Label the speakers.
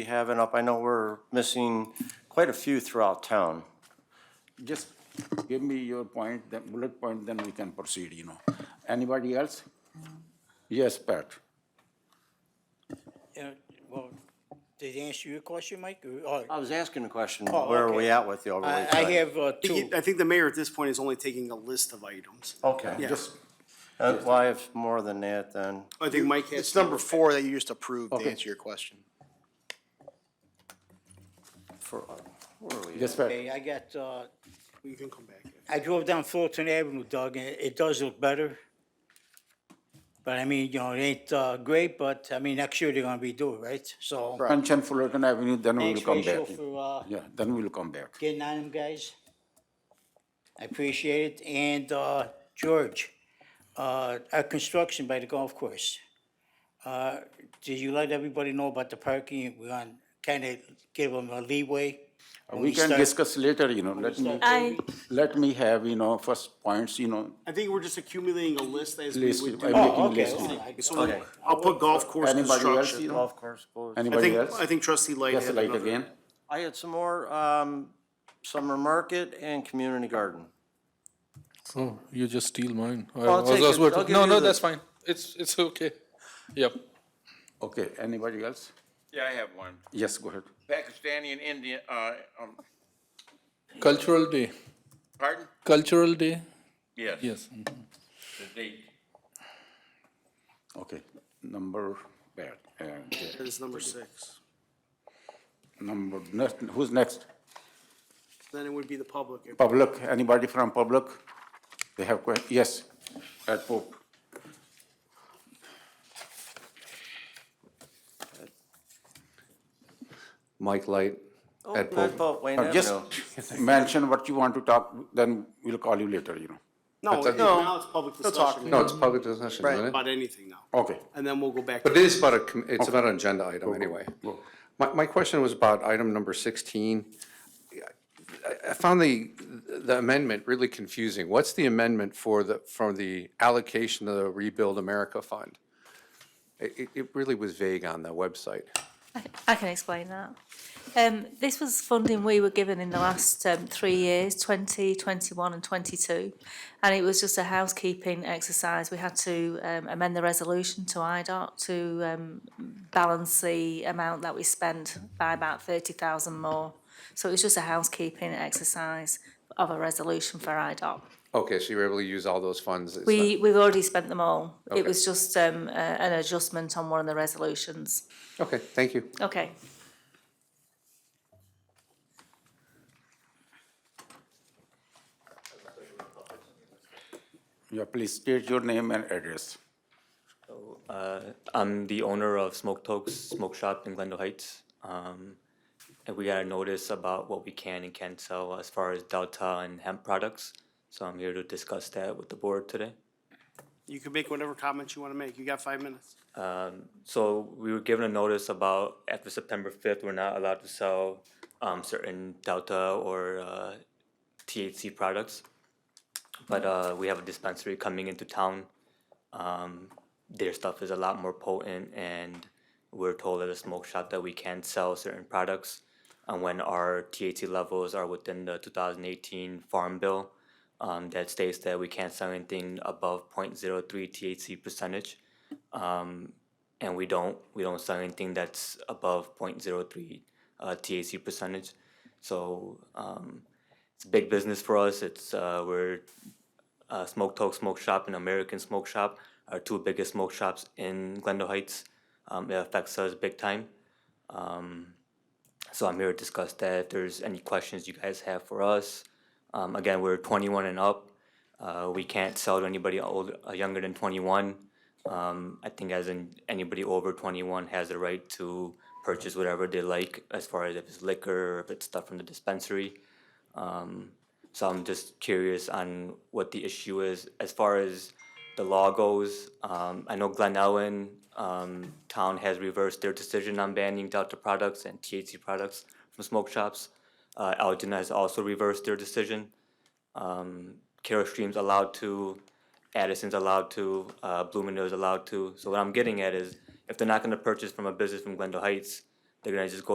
Speaker 1: be having up? I know we're missing quite a few throughout town.
Speaker 2: Just give me your point, then bullet point, then we can proceed, you know. Anybody else? Yes, Pat.
Speaker 3: Yeah, Uh, well, did it answer your question, Mike? Or-
Speaker 1: I was asking a question,
Speaker 3: Oh,
Speaker 1: where are we
Speaker 3: okay.
Speaker 1: at with the overlay?
Speaker 3: I, I
Speaker 1: side?
Speaker 3: have uh, two.
Speaker 4: I think the mayor at this point is only taking a list of items.
Speaker 1: Okay.
Speaker 4: Yeah.
Speaker 2: Just,
Speaker 1: Uh, Well, I have more than that then.
Speaker 4: I think Mike has.
Speaker 5: It's number four that you just approved to
Speaker 2: Okay.
Speaker 5: answer your question.
Speaker 1: For, uh, where are we?
Speaker 2: yes, Pat.
Speaker 3: Okay, I got, uh,
Speaker 4: You can come back.
Speaker 3: I drove down Fulton Avenue, Doug, and it does look better. But I mean, you know, it ain't, uh, great, but I mean, next year they're gonna redo it, right? So.
Speaker 2: Mention Fullerton Avenue, then we'll
Speaker 3: Thanks,
Speaker 2: come
Speaker 3: Rachel,
Speaker 2: back.
Speaker 3: for, uh,
Speaker 2: Yeah, then we'll come back.
Speaker 3: getting on them, guys. I appreciate it. And, uh, George, uh, our construction by the golf course. Uh, did you let everybody know about the parking? We're gonna kinda give them a leeway. when
Speaker 2: We can
Speaker 3: start-
Speaker 2: discuss later, you know, let me,
Speaker 6: I,
Speaker 2: let me have, you know, first points, you know,
Speaker 4: I think we're just accumulating a list as we
Speaker 2: list,
Speaker 4: would
Speaker 2: I'm
Speaker 4: do.
Speaker 3: Oh,
Speaker 2: making
Speaker 3: okay,
Speaker 2: list. you know.
Speaker 3: okay, I got
Speaker 4: So
Speaker 1: Okay.
Speaker 4: I'll put golf course
Speaker 2: Anybody else, you
Speaker 4: construction.
Speaker 2: know,
Speaker 1: Golf course goes.
Speaker 4: I
Speaker 2: anybody
Speaker 4: think,
Speaker 2: else?
Speaker 4: I think trustee Light
Speaker 2: Yes,
Speaker 4: had
Speaker 2: light
Speaker 4: another-
Speaker 2: again.
Speaker 1: I had some more, um, summer market and community garden.
Speaker 7: Oh, you just steal mine. I
Speaker 1: I'll
Speaker 7: was
Speaker 1: take
Speaker 7: just
Speaker 1: it.
Speaker 7: about
Speaker 1: I'll
Speaker 7: to-
Speaker 1: give
Speaker 7: no,
Speaker 1: you
Speaker 7: no,
Speaker 1: the-
Speaker 7: that's fine. It's it's okay. Yep.
Speaker 2: Okay, anybody else?
Speaker 8: Yeah, I have one.
Speaker 2: Yes, go ahead.
Speaker 8: Pakistani and Indian, uh, um,
Speaker 7: Cultural day.
Speaker 8: pardon?
Speaker 7: Cultural day.
Speaker 8: Yes.
Speaker 7: Yes.
Speaker 8: The date.
Speaker 2: Okay, number, Pat, uh, yeah,
Speaker 4: That is number six.
Speaker 2: number, next- who's next?
Speaker 4: Then it would be the public.
Speaker 2: Public, anybody from public? They have que, yes, at Pope.
Speaker 9: Mike Light at
Speaker 1: Oh, Not
Speaker 9: Pope.
Speaker 1: about Wayne
Speaker 2: Now, Just
Speaker 1: Avenue.
Speaker 2: mention what you want to talk, then we'll call you later, you know.
Speaker 4: No,
Speaker 9: That's-
Speaker 4: now it's public discussion
Speaker 9: No, it's public discussion, isn't it?
Speaker 4: about anything now.
Speaker 2: Okay,
Speaker 4: And then we'll go back. to
Speaker 9: But it is about a, com- it's about an agenda item anyway. My, my question was about item number sixteen. I, I found the, the amendment really confusing. What's the amendment for the, from the allocation of the Rebuild America Fund? It, it- it really was vague on the website.
Speaker 6: I can explain that. Um, this was funding we were given in the last um, three years, 20, 21 and 22. And it was just a housekeeping exercise. We had to um, amend the resolution to IDOT to um, balance the amount that we spent by about 30,000 more. So it was just a housekeeping exercise of a resolution for IDOT.
Speaker 9: Okay, so you were able to use all those funds. It's
Speaker 6: We,
Speaker 9: not-
Speaker 6: we've already spent them all. It was just um, a, an adjustment on one of the resolutions.
Speaker 9: Okay, thank you.
Speaker 6: Okay.
Speaker 2: yeah, please state your name and address.
Speaker 10: I'm the owner of Smoke Tokes Smoke Shop in Glendale Heights. Um, and we got a notice about what we can and can't sell as far as Delta and hemp products. So I'm here to discuss that with the board today.
Speaker 4: You can make whatever comments you want to make. You got five minutes.
Speaker 10: So we were given a notice about after September 5th, we're not allowed to sell um, certain Delta or uh, THC products. But uh, we have a dispensary coming into town. Um, their stuff is a lot more potent, and we're told at a smoke shop that we can sell certain products. And when our THC levels are within the 2018 Farm Bill, um, that states that we can't sell anything above 0.03 THC percentage um, and we don't we don't sell anything that's above 0.03 uh, TAC percentage. So um, it's a big business for us. It's uh, we're uh, Smoke Talk Smoke Shop and American Smoke Shop are two biggest smoke shops in Glendale Heights. Um, it affects us big time. Um, so I'm here to discuss that. If there's any questions you guys have for us, um, again we're 21 and up. Uh, we can't sell to anybody older, uh, younger than 21. Um, I think as in anybody over twenty-one has the right to purchase whatever they like as far as if it's liquor or if it's stuff from the dispensary. Um, so I'm just curious on what the issue is as far as the law goes. Um, I know Glen Ellen, um, town has reversed their decision on banning Delta products and THC products from smoke shops. Uh, Elgin has also reversed their decision. Um, Carol Stream's allowed to, Addison's allowed to, uh, Bloomingdale's allowed to. So what I'm getting at is, if they're not gonna purchase from a business from Glendale Heights,
Speaker 1: They're gonna just go